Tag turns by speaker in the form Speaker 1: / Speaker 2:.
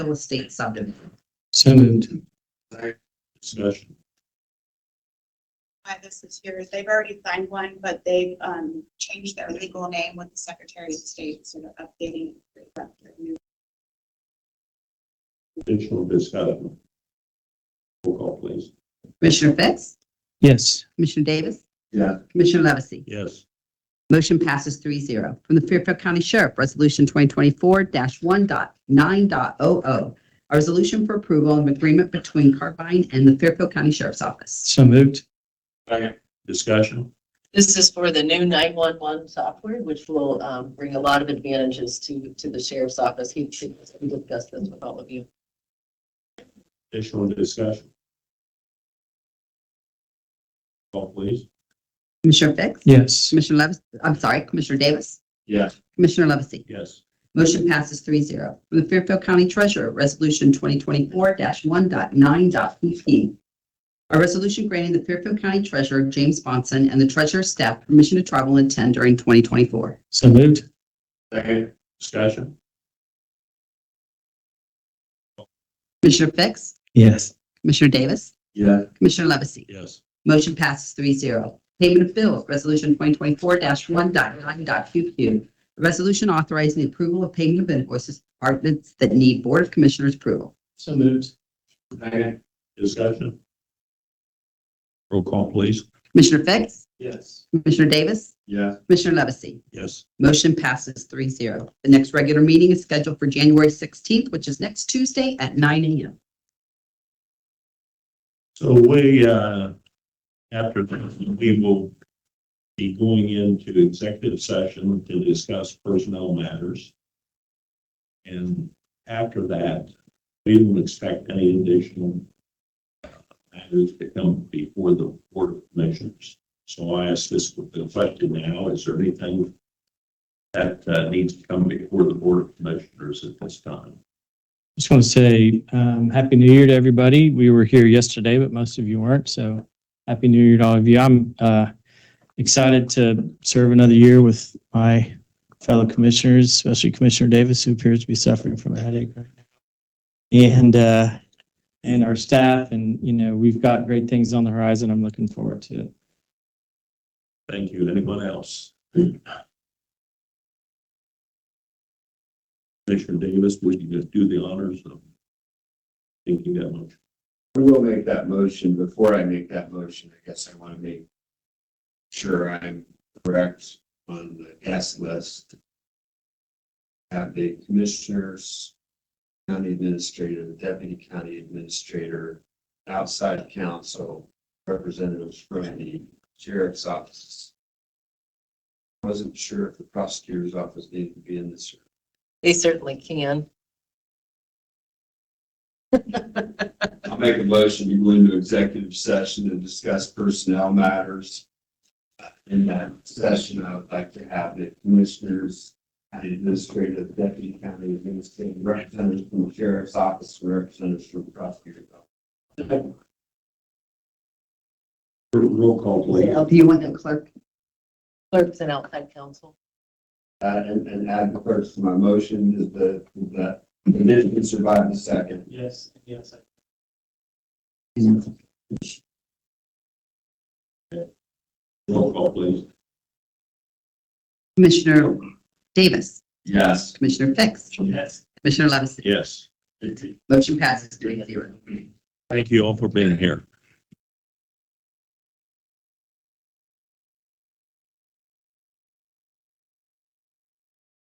Speaker 1: real estate subdivision.
Speaker 2: So moved. Discussion.
Speaker 3: why this is here is they've already signed one, but they've um changed their legal name with the Secretary of State, sort of updating. it.
Speaker 2: Additional discussion. Roll call, please.
Speaker 1: Commissioner Fix?
Speaker 4: Yes.
Speaker 1: Commissioner Davis?
Speaker 2: Yeah.
Speaker 1: Commissioner Levesey?
Speaker 2: Yes.
Speaker 1: Motion passes three zero. From the Fairfield County Sheriff, Resolution 2024-1.9.o.o. A resolution for approval of agreement between Carbine and the Fairfield County Sheriff's Office.
Speaker 4: So moved.
Speaker 2: Second. Discussion.
Speaker 5: This is for the new 911 software, which will um, bring a lot of advantages to, to the sheriff's office. He should discuss this with all of you.
Speaker 2: Additional discussion. Roll Call, please.
Speaker 1: Commissioner Fix?
Speaker 4: Yes.
Speaker 1: Commissioner Levis, I'm sorry, Commissioner Davis?
Speaker 2: Yes.
Speaker 1: Commissioner Levesey?
Speaker 2: Yes.
Speaker 1: Motion passes three zero. From the Fairfield County Treasurer, Resolution 2024-1.9.p.p. A resolution granting the Fairfield County Treasurer, James Bonson, and the Treasurer's staff permission to travel and attend during 2024.
Speaker 4: So moved.
Speaker 2: Second. Discussion.
Speaker 1: Commissioner Fix?
Speaker 4: Yes.
Speaker 1: Commissioner Davis?
Speaker 2: Yeah.
Speaker 1: Commissioner Levesey?
Speaker 2: Yes.
Speaker 1: Motion passes three zero. Payment of bills, Resolution 2024-1.9.q.q. A resolution authorizing the approval of payment of invoices to departments that need Board of Commissioners approval.
Speaker 4: So moved.
Speaker 2: Second. Discussion. Roll call, please.
Speaker 1: Commissioner Fix?
Speaker 2: Yes.
Speaker 1: Commissioner Davis?
Speaker 2: Yeah.
Speaker 1: Commissioner Levesey?
Speaker 2: Yes.
Speaker 1: Motion passes three zero. The next regular meeting is scheduled for January 16th, which is next Tuesday at 9 a.m.
Speaker 2: So we, uh, after this, we will be going into executive session to discuss personnel matters. And after that, we don't expect any additional uh, matters to come before the board of commissioners. So I ask this with the question now, is there anything that uh, needs to come before the board of commissioners at this time?
Speaker 4: Just want to say, um, Happy New Year to everybody. We were here yesterday, but most of you weren't. So Happy New Year to all of you. I'm, uh, excited to serve another year with my fellow commissioners, especially Commissioner Davis, who appears to be suffering from a headache right now. And, uh, and our staff and, you know, we've got great things on the horizon. I'm looking forward to it.
Speaker 2: Thank you. Anyone else? Commissioner Davis, would you just do the honors of thinking that much?
Speaker 6: I will make that motion. Before I make that motion, I guess I want to make sure I'm correct on the guest list. Have the commissioners, county administrator, the deputy county administrator, outside council, representatives from the sheriff's office. Wasn't sure if the prosecutor's office needed to be in this.
Speaker 5: They certainly can.
Speaker 6: I'll make a motion to go into executive session to discuss personnel matters. In that session, I would like to have the commissioners, county administrator, deputy county administrator, representatives from the sheriff's office, representatives from the prosecutor's office.
Speaker 2: Roll call, please.
Speaker 1: Do you want the clerk?
Speaker 5: Clerks and outside counsel.
Speaker 6: Uh, and, and add the first to my motion, is the, that, if you survive the second.
Speaker 4: Yes, yes.
Speaker 2: Roll call, please.
Speaker 1: Commissioner Davis?
Speaker 6: Yes.
Speaker 1: Commissioner Fix?
Speaker 4: Yes.
Speaker 1: Commissioner Levesey?
Speaker 2: Yes.
Speaker 1: Motion passes three zero.
Speaker 2: Thank you all for being here.